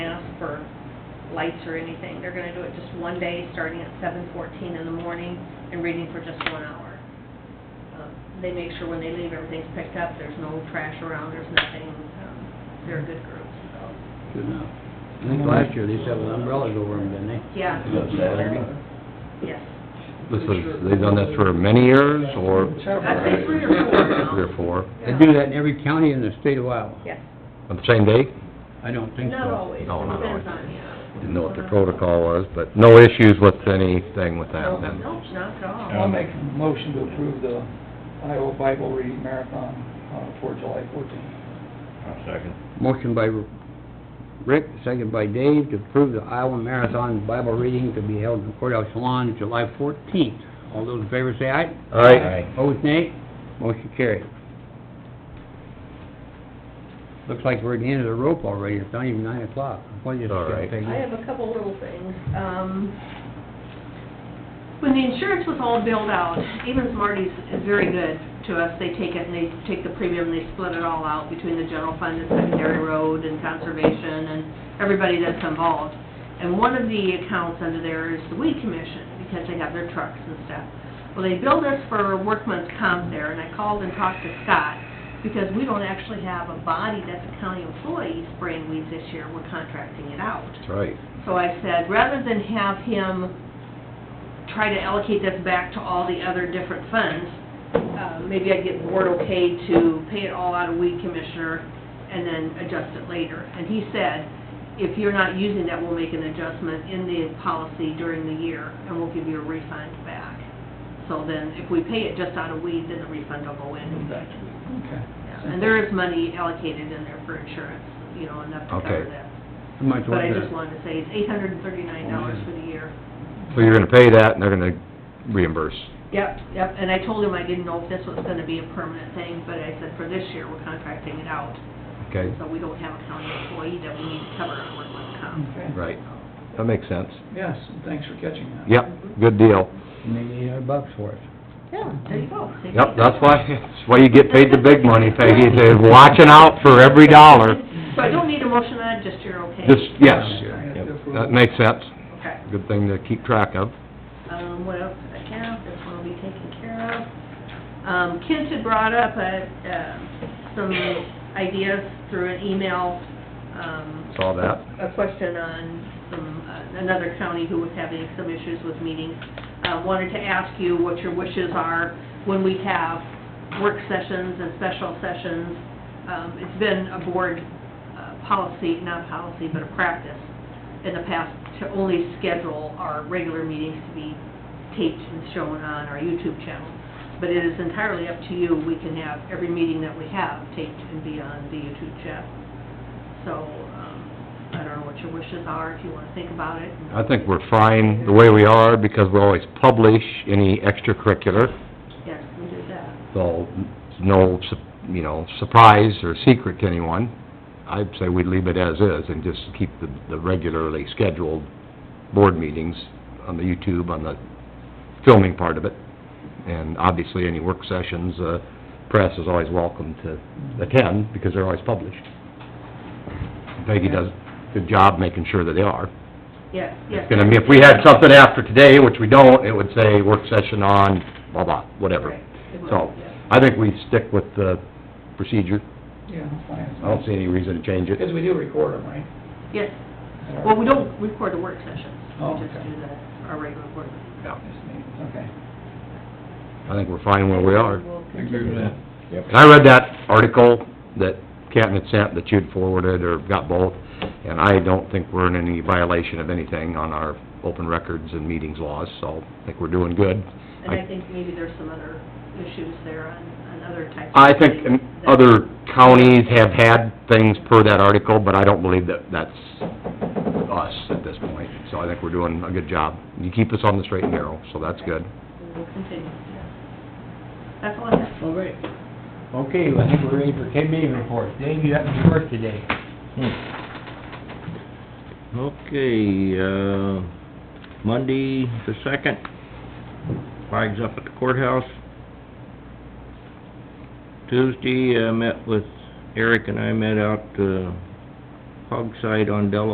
lights or anything. They're gonna do it just one day, starting at seven fourteen in the morning and reading for just one hour. Um, They make sure when they leave, everything's picked up, there's no trash around, there's nothing. Um, They're a good group, so. Good enough. I think last year they used to have umbrellas over them, didn't they? Yeah. Looks like- Yes. This is, they've done this for many years, or? I'd say three or four now. Three or four. They do that in every county in the state of Iowa. Yes. On the same day? I don't think so. Not always. No, not Depends always. on, yeah. Didn't know what the protocol was, but no issues with anything with that then? Nope, not at all. I'll make a motion to approve the Iowa Bible Reading Marathon uh, for July 14th. second. Motion by Rick, second by Dave, to approve the Iowa Marathon Bible reading to be held in the courthouse lawn July fourteenth. All those in favor say aye. Aye. Opposed, nay. Motion carried. Looks like we're at the end of the rope already. It's not even nine o'clock. What do you All right. think, Peggy? I have a couple little things. Um, When the insurance was all billed out, Evans Marty's is very good to us. They take it and they take the premium and they split it all out between the general fund and secondary road and conservation and everybody that's involved. And one of the accounts under there is the weed commission because they have their trucks and stuff. Well, they billed us for workman's comp there and I called and talked to Scott because we don't actually have a body that's a county employee spraying weeds this year. We're contracting it out. That's right. So I said, rather than have him try to allocate this back to all the other different funds, uh, maybe I'd get board okay to pay it all out of weed commissioner and then adjust it later. And he said, if you're not using that, we'll make an adjustment in the policy during the year and we'll give you a refund back. So then if we pay it just out of weed, then the refund will go in. Okay. Yeah, And there is money allocated in there for insurance, you know, enough to cover Okay. that. How much But I was just that? wanted to say, it's eight hundred and thirty-nine dollars for the year. So you're gonna pay that, and they're gonna reimburse. Yep, yep, and I told him I didn't know if this was gonna be a permanent thing, but I said for this year, we're contracting it out. Okay, So we don't have a county employee that we need to cover on workman's comp. Okay. right. That makes sense. Yes, and thanks for catching that. Yep, good deal. Maybe eight hundred bucks for it. Yeah, there you go. Save Yep, me. that's why, that's why you get paid the big money, Peggy, they're watching out for every dollar. So I don't need a motion on it, just you're okay? Just, yes, Yeah. Yep, that makes sense. Okay. Good thing to keep track of. Um, what else did I have? This one will be taken care of. Um, Kent had brought up, uh, uh, some ideas through an email, um, Saw that. a question on some, uh, another county who was having some issues with meetings. Uh, wanted to ask you what your wishes are when we have work sessions and special sessions. Um, it's been a board, uh, policy, not policy, but a practice in the past to only schedule our regular meetings to be taped and shown on our YouTube channel. But it is entirely up to you. We can have every meeting that we have taped and be on the YouTube channel. So, um, I don't know what your wishes are, if you wanna think about it. I think we're fine the way we are, because we always publish any extracurricular, Yes, we do that. so no, su- you know, surprise or secret to anyone. I'd say we leave it as is and just keep the, the regularly scheduled board meetings on the YouTube, on the filming part of it. And obviously, any work sessions, uh, press is always welcome to attend, because they're always published. Peggy does a good job making sure that they are. Yes, yes. It's gonna be, if we had something after today, which we don't, it would say work session on blah, blah, whatever. Right, it will, So, yes. I think we stick with the procedure. Yeah, that's fine. I don't see any reason to change Because it. we do record them, right? Yes, well, we don't record the work sessions, Oh, we just okay. do the, our regular board. meetings. Yeah. Okay. I think we're fine where we are. We'll I agree with that. And I read that article that Captain had sent, that you'd forwarded or got both, and I don't think we're in any violation of anything on our open records and meetings laws, so I think we're doing good. And I think maybe there's some other issues there on, on other types of... I think um, things that- other counties have had things per that article, but I don't believe that that's us at this point. So I think we're doing a good job. You keep us on the straight and narrow, so that's good. We'll continue, yes. That's all I have. All right. Okay, I think we're ready for committee reports. Dave, you happen to work today. Hmm. Okay, uh, Monday the second, flags up at the courthouse. Tuesday, I met with, Eric and I met out, uh, hog site on Delaware